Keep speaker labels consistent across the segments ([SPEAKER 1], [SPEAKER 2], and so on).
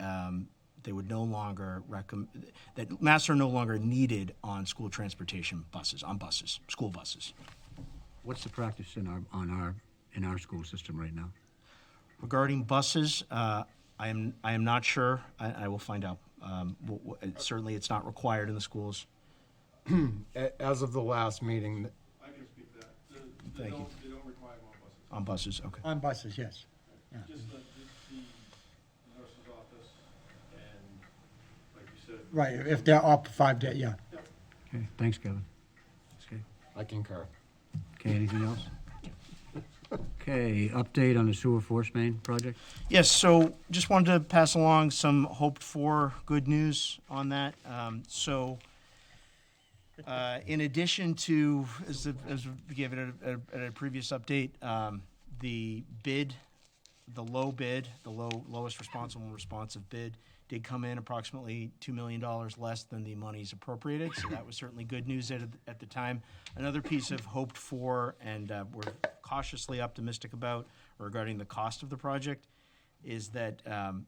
[SPEAKER 1] um, they would no longer recommend, that masks are no longer needed on school transportation buses, on buses, school buses.
[SPEAKER 2] What's the practice in our, on our, in our school system right now?
[SPEAKER 1] Regarding buses, uh, I am, I am not sure. I, I will find out. Um, w- w- Certainly, it's not required in the schools.
[SPEAKER 3] A- As of the last meeting,
[SPEAKER 4] I can speak to that. The- They
[SPEAKER 1] Thank you.
[SPEAKER 4] don't, they don't require more buses.
[SPEAKER 1] On buses, okay.
[SPEAKER 5] On buses, yes.
[SPEAKER 4] Just the, the the nurse's office and, like you said.
[SPEAKER 5] Right, if they're up five day, yeah.
[SPEAKER 2] Okay, thanks, Kevin. Okay,
[SPEAKER 3] I concur.
[SPEAKER 2] Okay. anything else? Okay, update on the sewer force main project?
[SPEAKER 1] Yes, so just wanted to pass along some hoped-for good news on that. Um, So uh, in addition to, as the- as we gave it at a- at a previous update, um, the bid, the low bid, the low, lowest responsible and responsive bid did come in approximately $2 million less than the monies appropriated, so that was certainly good news at, at the time. Another piece of hoped-for and uh, we're cautiously optimistic about regarding the cost of the project is that um,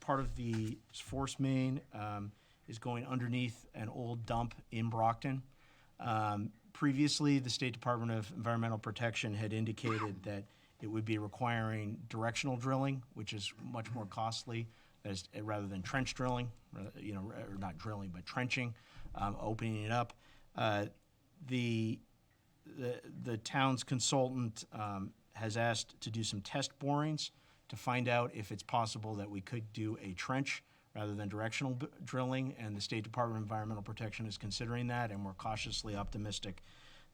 [SPEAKER 1] part of the force main um, is going underneath an old dump in Brockton. Um, previously, the State Department of Environmental Protection had indicated that it would be requiring directional drilling, which is much more costly as rather than trench drilling, rather- you know, or not drilling, but trenching, um, opening it up. Uh, the the, the town's consultant um, has asked to do some test borings to find out if it's possible that we could do a trench rather than directional b- drilling, and the State Department of Environmental Protection is considering that, and we're cautiously optimistic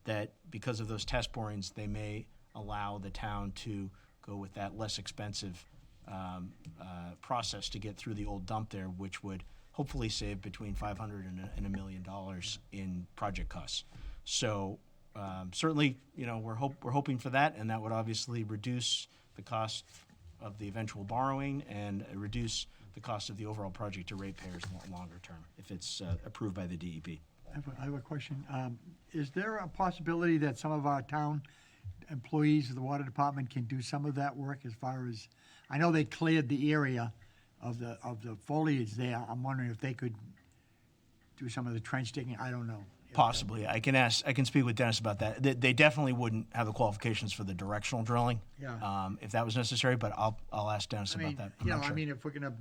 [SPEAKER 1] that because of those test borings, they may allow the town to go with that less expensive um, uh, process to get through the old dump there, which would hopefully save between 500 and a, and a million dollars in project costs. So um, certainly, you know, we're hope we're hoping for that, and that would obviously reduce the cost of the eventual borrowing and uh, reduce the cost of the overall project to ratepayers lo- longer term if it's uh, approved by the DEP.
[SPEAKER 5] I have a- I have a question. Um, Is there a possibility that some of our town employees of the water department can do some of that work as far as, I know they cleared the area of the, of the foliage there. I'm wondering if they could do some of the trench digging. I don't know.
[SPEAKER 1] Possibly, I can ask. I can speak with Dennis about that. They, they definitely wouldn't have the qualifications for the directional drilling,
[SPEAKER 5] Yeah.
[SPEAKER 1] um, if that was necessary. But I'll I'll ask Dennis
[SPEAKER 5] I
[SPEAKER 1] about
[SPEAKER 5] mean,
[SPEAKER 1] that. I'm
[SPEAKER 5] you know,
[SPEAKER 1] not
[SPEAKER 5] I
[SPEAKER 1] sure.
[SPEAKER 5] mean, if we're gonna,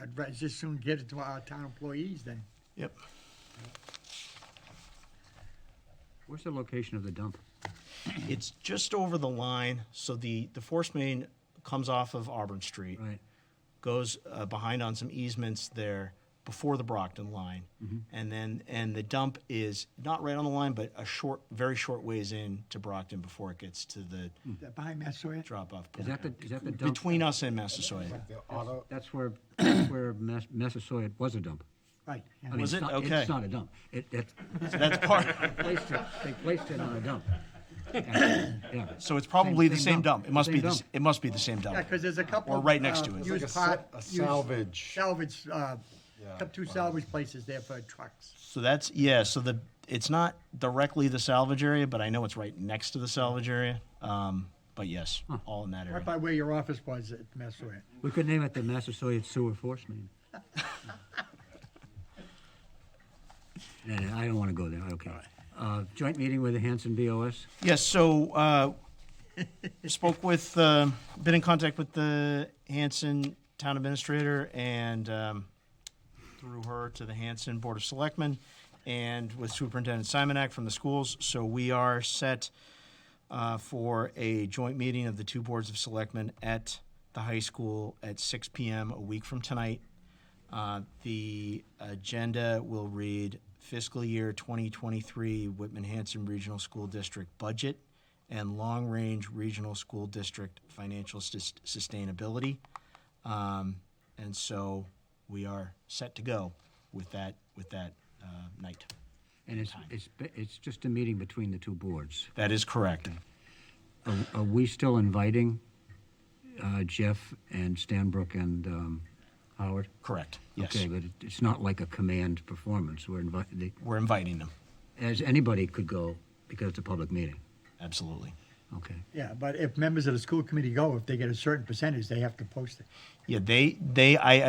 [SPEAKER 5] I'd ra- just soon get it to our town employees then.
[SPEAKER 1] yep.
[SPEAKER 2] Where's the location of the dump?
[SPEAKER 1] It's just over the line, so the the force main comes off of Auburn Street.
[SPEAKER 2] Right,
[SPEAKER 1] goes uh, behind on some easements there before the Brockton line, and then and the dump is not right on the line, but a short, very short ways in to Brockton before it gets to the
[SPEAKER 5] That Behind Massasoit?
[SPEAKER 1] drop off
[SPEAKER 2] is
[SPEAKER 1] point.
[SPEAKER 2] that the, is that the dump?
[SPEAKER 1] Between us and Massasoit.
[SPEAKER 3] The auto,
[SPEAKER 2] That's where, that's where Mass- Massasoit was a dump.
[SPEAKER 5] Right. yeah.
[SPEAKER 2] I mean,
[SPEAKER 1] Was
[SPEAKER 2] it's
[SPEAKER 1] it?
[SPEAKER 2] not-
[SPEAKER 1] Okay.
[SPEAKER 2] It's not a dump. It, it's,
[SPEAKER 1] That's part.
[SPEAKER 2] they placed it, they placed it on a dump. Yeah.
[SPEAKER 1] So it's probably the
[SPEAKER 2] Same-
[SPEAKER 1] same
[SPEAKER 2] same
[SPEAKER 1] dump.
[SPEAKER 2] dump.
[SPEAKER 1] It must be
[SPEAKER 2] Same
[SPEAKER 1] the, s-
[SPEAKER 2] dump.
[SPEAKER 1] it must be the same
[SPEAKER 5] Yeah,
[SPEAKER 1] dump.
[SPEAKER 5] because there's a couple.
[SPEAKER 1] Or right next
[SPEAKER 5] uh,
[SPEAKER 1] to it. It's
[SPEAKER 3] like
[SPEAKER 5] used
[SPEAKER 3] a sa-
[SPEAKER 5] pot-
[SPEAKER 3] a
[SPEAKER 5] used
[SPEAKER 3] salvage.
[SPEAKER 5] Salvage, uh,
[SPEAKER 3] Yeah,
[SPEAKER 5] kept two
[SPEAKER 3] wow.
[SPEAKER 5] salvage places there for trucks.
[SPEAKER 1] So that's yeah. So the it's not directly the salvage area, but I know it's right next to the salvage area. Um, but yes, all in that
[SPEAKER 5] Right
[SPEAKER 1] area.
[SPEAKER 5] by where your office was at Massasoit.
[SPEAKER 2] We could name it the Massasoit Sewer Force Main. No, no, I don't want to go there, okay. Uh, Joint meeting with the Hanson BOS,
[SPEAKER 1] Yes, so uh, spoke with, um, been in contact with the Hanson Town Administrator and um, through her to the Hanson Board of Selectmen and with Superintendent Simonak from the schools. So we are set uh, for a joint meeting of the two boards of selectmen at the high school at 6 PM a week from tonight. Uh, The agenda will read fiscal year 2023 Whitman-Hanson Regional School District budget and long-range regional school district financial sus- sustainability. Um, And so we are set to go with that, with that uh, night.
[SPEAKER 2] and it's, it's, ba- it's just a meeting between the two boards.
[SPEAKER 1] That is correct.
[SPEAKER 2] Are are we still inviting uh, Jeff and Stanbrook and um, Howard?
[SPEAKER 1] Correct, yes.
[SPEAKER 2] Okay, but it- it's not like a command performance, we're inviting,
[SPEAKER 1] We're inviting them,
[SPEAKER 2] as anybody could go, because it's a public meeting,
[SPEAKER 1] absolutely.
[SPEAKER 2] okay?
[SPEAKER 5] Yeah, but if members of the school committee go, if they get a certain percentage, they have to post it.
[SPEAKER 1] Yeah, they, they, I